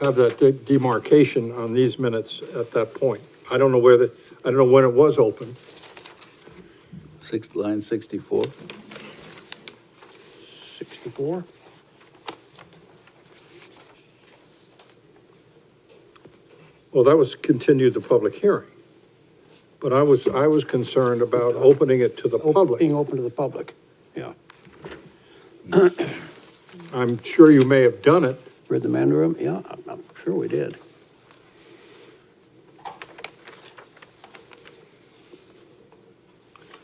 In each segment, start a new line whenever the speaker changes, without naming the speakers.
have that de- demarcation on these minutes at that point. I don't know where the, I don't know when it was open.
Sixth, line sixty-four.
64?
Well, that was continued the public hearing. But I was, I was concerned about opening it to the
Op-
public.
Being open to the public, yeah.
I'm sure you may have done it.
Read the Mandarin, yeah, I'm- I'm sure we did.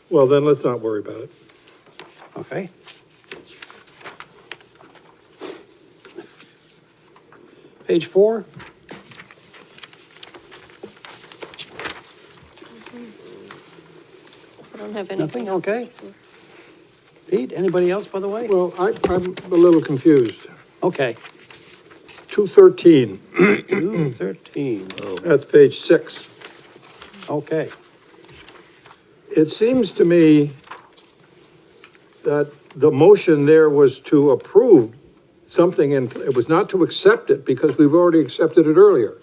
Well, then let's not worry about it.
Okay. Page four.
I don't have anything.
Nothing, okay. Pete, anybody else, by the way?
Well, I, I'm a little confused.
Okay,
Two thirteen,
Two thirteen.
that's page six.
okay.
It seems to me that the motion there was to approve something and it was not to accept it because we've already accepted it earlier.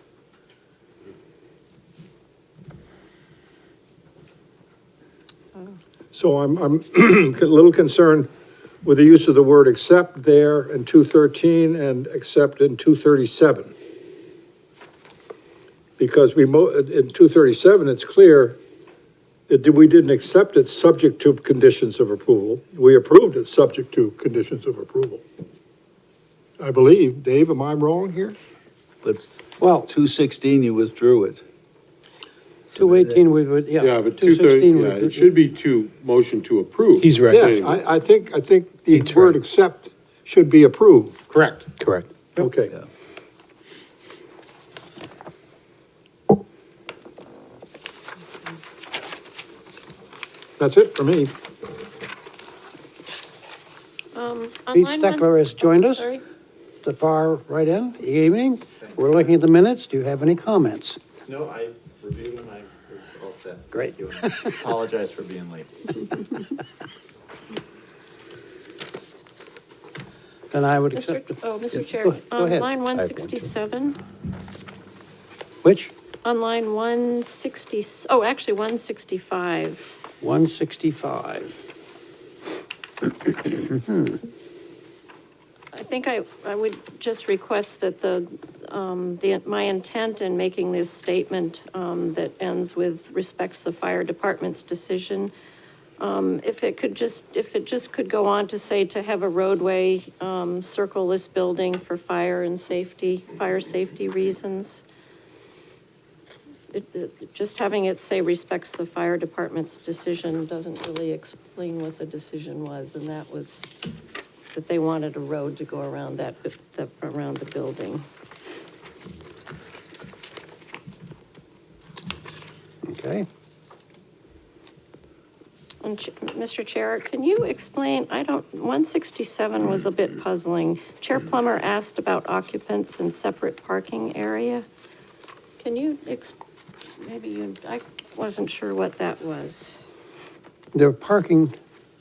So I'm, I'm a little concerned with the use of the word accept there in two thirteen and accept in two thirty-seven. Because we mo, in two thirty-seven, it's clear it did- we didn't accept it subject to conditions of approval. We approved it subject to conditions of approval. I believe, Dave, am I wrong here?
But
Well,
two sixteen, you withdrew it.
two eighteen, we would, yeah.
Yeah, but two thirty,
216 we
yeah, it
did-
should be two, motion to approve.
He's right.
Yes, I, I think, I think the word accept should be approved.
Correct.
Correct.
Okay.
Yeah.
That's it for me.
Pete
Online one-
Steckler has joined us,
Sorry.
the far right end, Good evening. We're looking at the minutes, do you have any comments?
No, I reviewed and I was all set.
Great.
Thank you. Apologize for being late.
Then I would
Mr.
accept,
Oh, Mr. Chair,
Go- go
on
ahead.
line
too.
167,
which?
on line 160, oh, actually 165.
One sixty-five.
I think I, I would just request that the, um, the, my intent in making this statement, um, that ends with respects the fire department's decision, um, if it could just, if it just could go on to say to have a roadway, um, circle this building for fire and safety, fire safety reasons. It, it, just having it say respects the fire department's decision doesn't really explain what the decision was, and that was that they wanted a road to go around that, bu- that, around the building.
Okay.
And, Ch- Mr. Chair, can you explain, I don't, 167 was a bit puzzling. Chair Plummer asked about occupants in separate parking area. Can you, ex- maybe you, I wasn't sure what that was.
They're parking,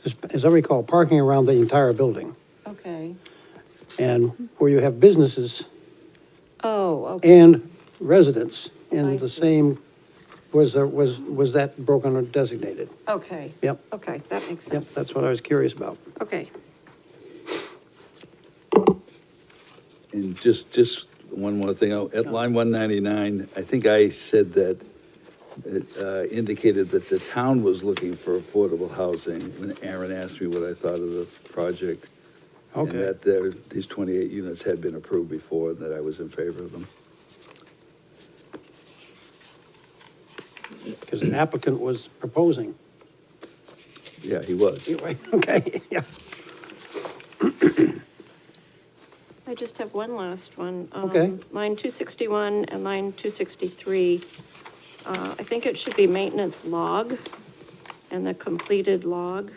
as- as I recall, parking around the entire building.
Okay.
And where you have businesses
Oh, okay,
and residents
I
in the
see.
same, was there, was, was that broken or designated?
okay.
Yep.
Okay, that makes
Yep,
sense.
that's what I was curious about.
Okay,
And just, just one more thing, Oh, at line one ninety-nine, I think I said that it uh, indicated that the town was looking for affordable housing, when Aaron asked me what I thought of the project.
Okay.
And that there, these twenty-eight units had been approved before, and that I was in favor of them.
Because an applicant was proposing.
Yeah, he was.
Okay, yeah.
I just have one last one. Um,
Okay.
Line 261 and line 263. Uh, I think it should be maintenance log and the completed log.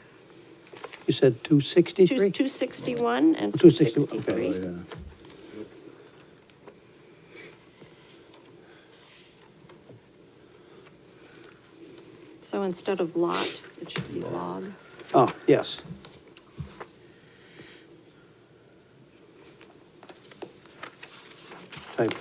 You said two
Two-
sixty-three?
261 and
261,
263.
Oh, yeah.
So instead of lot, it should be log.
Oh, yes.